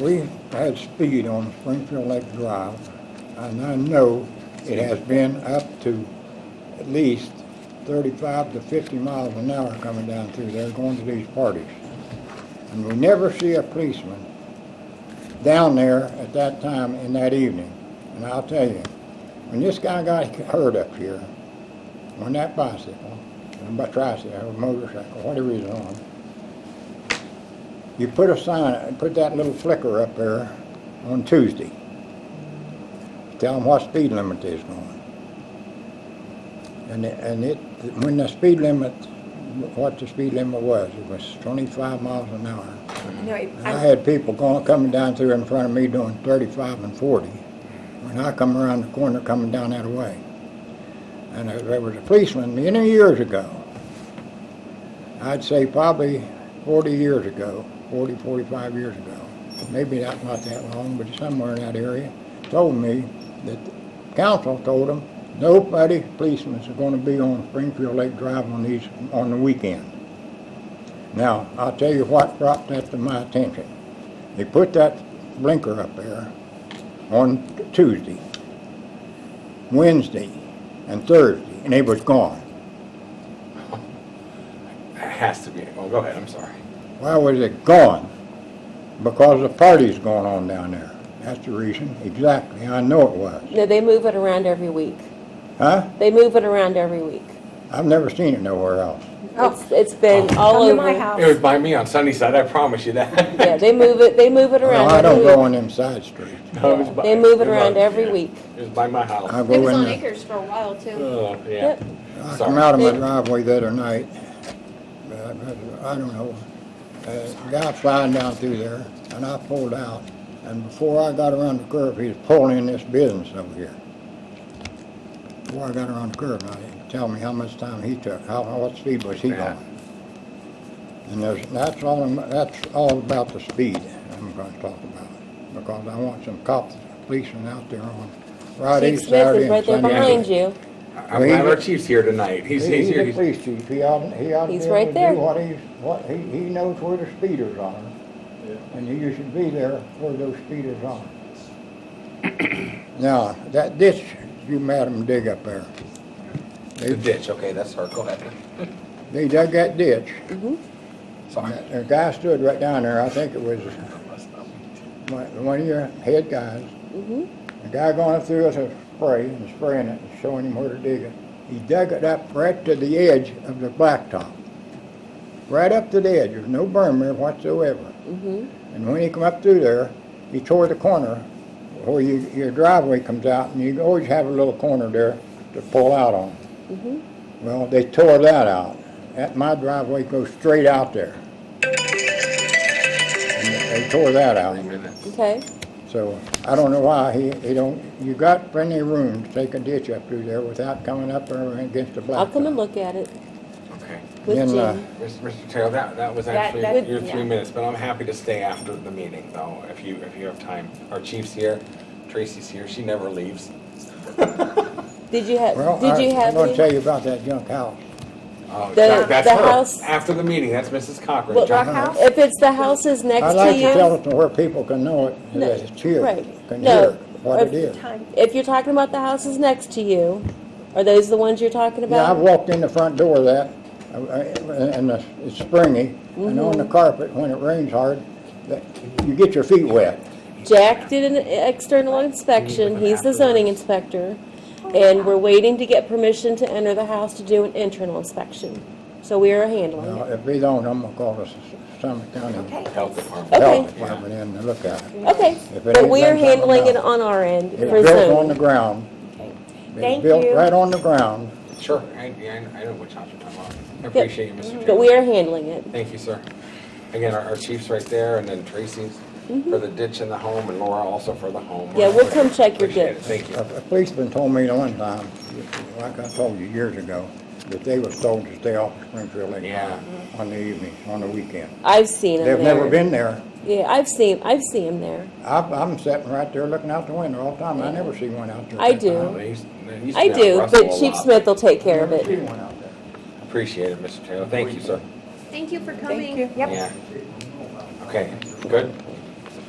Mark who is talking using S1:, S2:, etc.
S1: we had speed on Springfield Lake Drive, and I know it has been up to at least thirty-five to fifty miles an hour coming down through there, going to these parties. And we never see a policeman down there at that time in that evening. And I'll tell you, when this guy got hurt up here, on that bicycle, or tricycle, or motorcycle, whatever he's on, you put a sign, put that little flicker up there on Tuesday. Tell them what speed limit is going. And it, and it, when the speed limit, what the speed limit was, it was twenty-five miles an hour.
S2: No, it-
S1: And I
S2: I,
S1: had people going, coming down through in front of me doing thirty-five and forty. When I come around the corner, coming down that way. And there- there was a policeman many years ago. I'd say probably forty years ago, 40, 45 years ago. Maybe not, not that long, but somewhere in that area, told me that the council told him, nobody, policemen are gonna be on Springfield Lake Drive on these, on the weekend. Now, I'll tell you what brought that to my attention. They put that blinker up there on Tuesday, Wednesday, and Thursday, and it was gone.
S3: It has to be. Oh, go ahead. I'm sorry.
S1: Why was it gone? Because the party's going on down there. That's the reason, exactly, I know it was.
S2: no, they move it around every week.
S1: Huh?
S2: They move it around every week.
S1: I've never seen it nowhere else.
S2: It's, it's been all
S4: Oh. Come
S2: over.
S4: to my house.
S3: It was by me on Sunnyside. I promise you that.
S2: Yeah, they move it, they move it
S1: No,
S2: around
S1: I
S2: every
S1: don't go
S2: week.
S1: on them side streets.
S3: No, it was by-
S2: They move it
S3: was
S2: around
S3: by-
S2: every
S3: yeah.
S2: week.
S3: It was by my house.
S1: I
S4: It
S1: go
S4: was
S1: in
S4: on
S1: there.
S4: Acres for a while too.
S3: Oh, yeah.
S2: Yep.
S1: I
S3: Sorry.
S1: come out of my
S2: They-
S1: driveway the other night, uh, I don't know, uh, a guy flying down through there, and I pulled out, and before I got around the curve, he was pulling in this business over here. Before I got around the curve, now, he tell me how much time he took, how, what speed was he
S3: Yeah.
S1: going? And there's, that's all, I'm- that's all about the speed I'm gonna talk about, because I want some cops, policemen out there on Friday,
S2: Chief Smith
S1: Saturday,
S2: is
S1: and
S2: right there
S1: Sunday.
S2: behind you.
S3: I'm glad our chief's here tonight. He's, he's
S1: He's
S3: here.
S1: the
S3: He's-
S1: police chief, he ought, he ought to be
S2: He's right
S1: able to
S2: there.
S1: do what he's, what, he, he knows where the speeders are. And you should be there where those speeders are. Now, that ditch you made 'em dig up there,
S3: The ditch. Okay, that's her. Go ahead.
S1: they dug that ditch.
S2: Mm-hmm.
S3: Sorry.
S1: A guy stood right down there, I think it was one one of your head guys. A guy going through with a spray and spraying it and showing him where to dig it. He dug it up right to the edge of the blacktop. Right up to the edge, there's no berm there whatsoever. And when he come up through there, he tore the corner where you, your driveway comes out and you always have a little corner there to pull out on. Well, they tore that out. That, my driveway goes straight out there. And they tore that out.
S2: Okay,
S1: So I don't know why he, he don't, you got plenty of room to take a ditch up through there without coming up there against the blacktop.
S2: I'll come and look at it
S3: Okay.
S2: with
S1: uh, Then, uh,
S2: Jim.
S3: Mr. Mr. Taylor, that, that was
S4: That-
S3: actually
S4: that-
S3: your three
S4: yeah.
S3: minutes, but I'm happy to stay after the meeting though, if you, if you have time. Our chief's here. Tracy's here. She never leaves.
S2: Did you have,
S1: Well,
S2: did you
S1: I- I'm
S2: have
S1: gonna
S2: any?
S1: tell you about that junk house.
S3: Oh,
S2: The-
S3: that- that's
S2: the
S3: her.
S2: house-
S3: After the meeting, that's Mrs. Cochran.
S2: Well,
S3: John-
S4: house?
S2: If it's the houses next
S1: I'd
S2: to
S1: like to tell
S2: you,
S1: it to where people can know it,
S2: No,
S1: that it's here,
S2: right.
S1: can
S2: No,
S1: hear what
S2: if-
S1: it is.
S4: Time.
S2: if you're talking about the houses next to you, are those the ones you're talking
S1: Yeah, I've
S2: about?
S1: walked in the front door of that, uh, uh, and the- it's springy, and on the
S2: Mm-hmm.
S1: carpet, when it rains hard, that, you get your feet wet.
S2: Jack did an external inspection, he's the zoning inspector, and we're waiting to get permission to enter the house to do an internal inspection. So we are handling
S1: Now,
S2: it.
S1: if they don't, I'm gonna call the S- Summit County
S4: Okay.
S3: Health Department.
S2: Oh, Okay.
S1: Health Department in to look at it.
S2: Okay,
S1: If it
S2: but
S1: ain't
S2: we are
S1: done something
S2: handling it
S1: about
S2: on our end
S1: It's
S2: for
S1: built on the
S2: Zoom.
S1: ground.
S4: Thank
S1: It's built
S4: you.
S1: right on the ground.
S3: Sure, I, yeah, I I know which house you're talking about. I appreciate you, Mr. Taylor.
S2: But we are handling it.
S3: Thank you, sir. Again, our, our chief's right there, and then Tracy's for the ditch and the home, and Laura also for the home.
S2: Mm-hmm. Yeah, we'll come check your
S3: Appreciate it.
S2: ditch.
S3: Thank you.
S1: A a policeman told me one time, like I told you years ago, that they was told to stay off of Springfield Lake
S3: Yeah.
S1: on the evening, on the weekend.
S2: I've seen him there.
S1: They've never been there.
S2: Yeah, I've seen, I've seen him there.
S1: I, I'm sitting right there looking out the window all the time. I never see one out there.
S2: I do.
S3: Well, they used- they used to
S2: Mm-hmm. I
S3: be out
S2: do,
S3: Russell
S2: but
S3: a
S2: Chief
S3: lot.
S2: Smith will take care of
S1: Never see
S2: it.
S1: one out there.
S3: Appreciate it, Mr. Taylor. Thank you, sir.
S4: Thank you for coming.
S3: Yeah. Okay, good.